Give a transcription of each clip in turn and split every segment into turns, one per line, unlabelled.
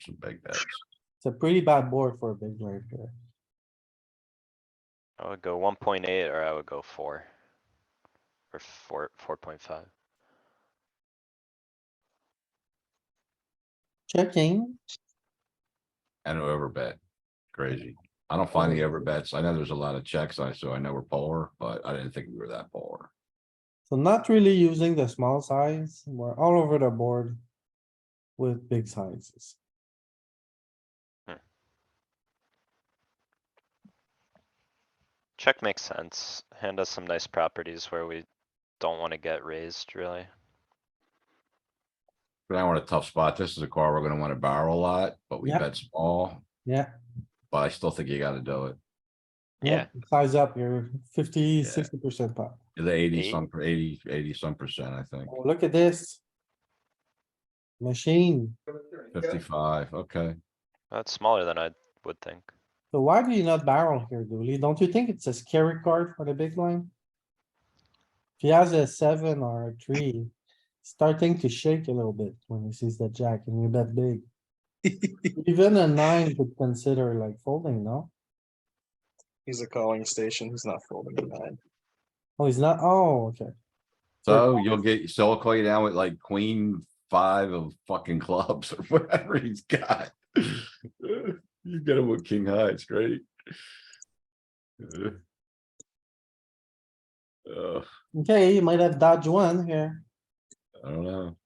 some big bets.
It's a pretty bad board for a big blind here.
I would go one point eight or I would go four. Or four, four point five.
Checking,
And over bet. Crazy. I don't find the over bets. I know there's a lot of checks. I, so I know we're polar, but I didn't think we were that polar.
so not really using the small size. We're all over the board with big sizes.
Check makes sense. Hand us some nice properties where we don't wanna get raised, really.
But I want a tough spot. This is a car we're gonna wanna barrel a lot, but we
Yep.
bet small,
Yeah. Oh,
but I still think you gotta do it.
Yeah.
Size up, you're fifty,
Yeah.
sixty percent pot.
The eighty
Eight.
some, eighty, eighty some percent, I think.
Oh, Look at this. Machine.
Fifty-five, okay.
That's smaller than I would think.
So why do you not barrel here, Dooley? Don't you think it's a scary card for the big blind? If he has a seven or a three, starting to shake a little bit when he sees the jack and you bet big. Even a nine could consider like folding, no?
He's a calling station. He's not folding a nine.
Oh, he's not, oh, okay.
So you'll get, so I'll call you down with like queen five of fucking clubs or whatever he's got. You get him with king high, it's great. Uh. Uh,
Okay, you might have dodged one here.
I don't know.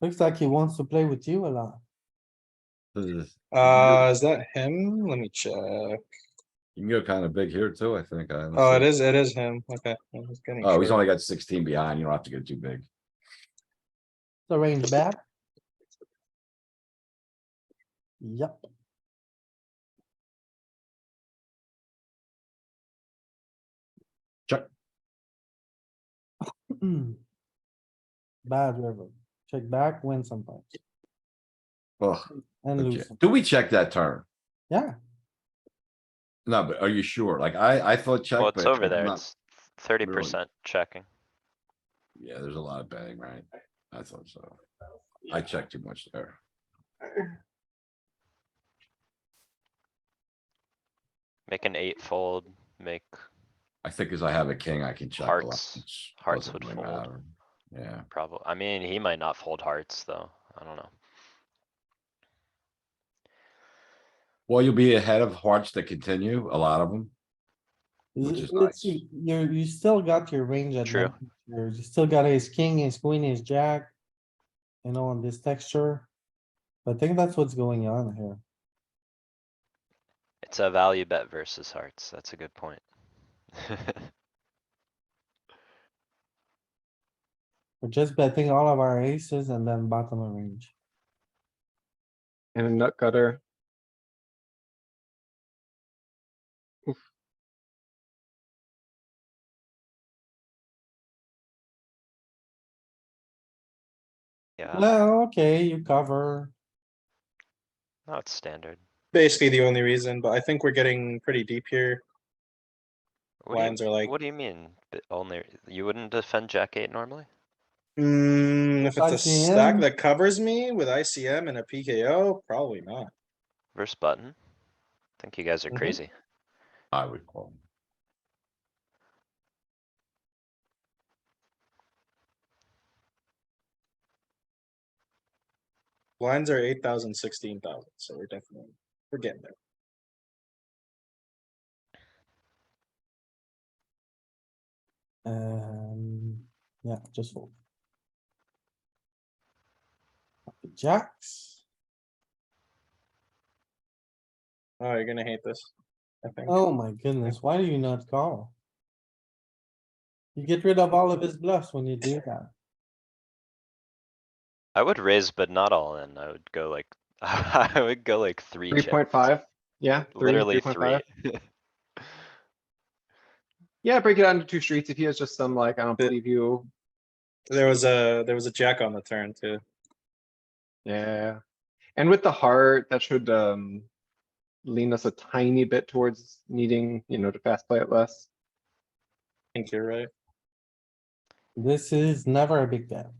Looks like he wants to play with you a lot.
This is-
Uh, is that him? Let me check.
You can go kind of big here too, I think. I
Oh, it
honestly.
is, it is him. Okay. I was getting
Oh, he's
sure.
only got sixteen behind. You don't have to go too big.
The range back. Yep,
Check.
bad river. Check back, win sometimes
Ugh,
and
okay.
lose. some.
Do we check that turn?
Yeah,
No, but are you sure? Like I, I thought check.
Well, it's
but
over
I'm
there.
not-
It's thirty percent checking.
Yeah, there's a lot of betting, right? I thought so. I checked too much there.
Make an eight fold, make,
I think as I have a king, I can check. a lot.
Hearts-
It's-
hearts
doesn't
would
really
fold.
matter. Yeah,
probably, I mean, he might not fold hearts, though. I don't know.
well, you'll be ahead of hearts that continue, a lot of them. Which is
It's-
nice.
it's- you you still got your range
True.
advantage. here. You still got ace king, ace queen, ace jack. You know, on this texture. I think that's what's going on here.
It's a value bet versus hearts. That's a good point.
We're just betting all of our aces and then bottom of range.
And a nut cutter.
Yeah,
Well, okay, you cover.
no, it's standard.
Basically the only reason, but I think we're getting pretty deep here.
What do you-
Lines are like,
What do you mean? b- Only, you wouldn't defend jack eight normally?
mm, if it's a stack
ICM.
that covers me with ICM and a PKO, probably not.
Versus button? Think you guys are
Mhm.
Mm-hmm.
crazy.
I would call.
Lines are eight thousand, sixteen thousand, so we're definitely, we're getting there.
Um, yeah, just fold. Jacks.
Oh, you're gonna hate this. I think.
Oh my goodness, why do you not call? You get rid of all of his bluffs when you do that.
I would raise, but not all in. I would go like, I would go like three
Three
check.
point five. Yeah. three,
Literally
3.5.
three.
Yeah, break it out into two streets. If he has just some like, I don't
Yeah.
believe you.
There was a, there was a jack on the turn too.
Yeah. And with the heart, that should um. Lean us a tiny bit towards needing, you know, to fast play it less.
I think you're right.
This is never a big bet.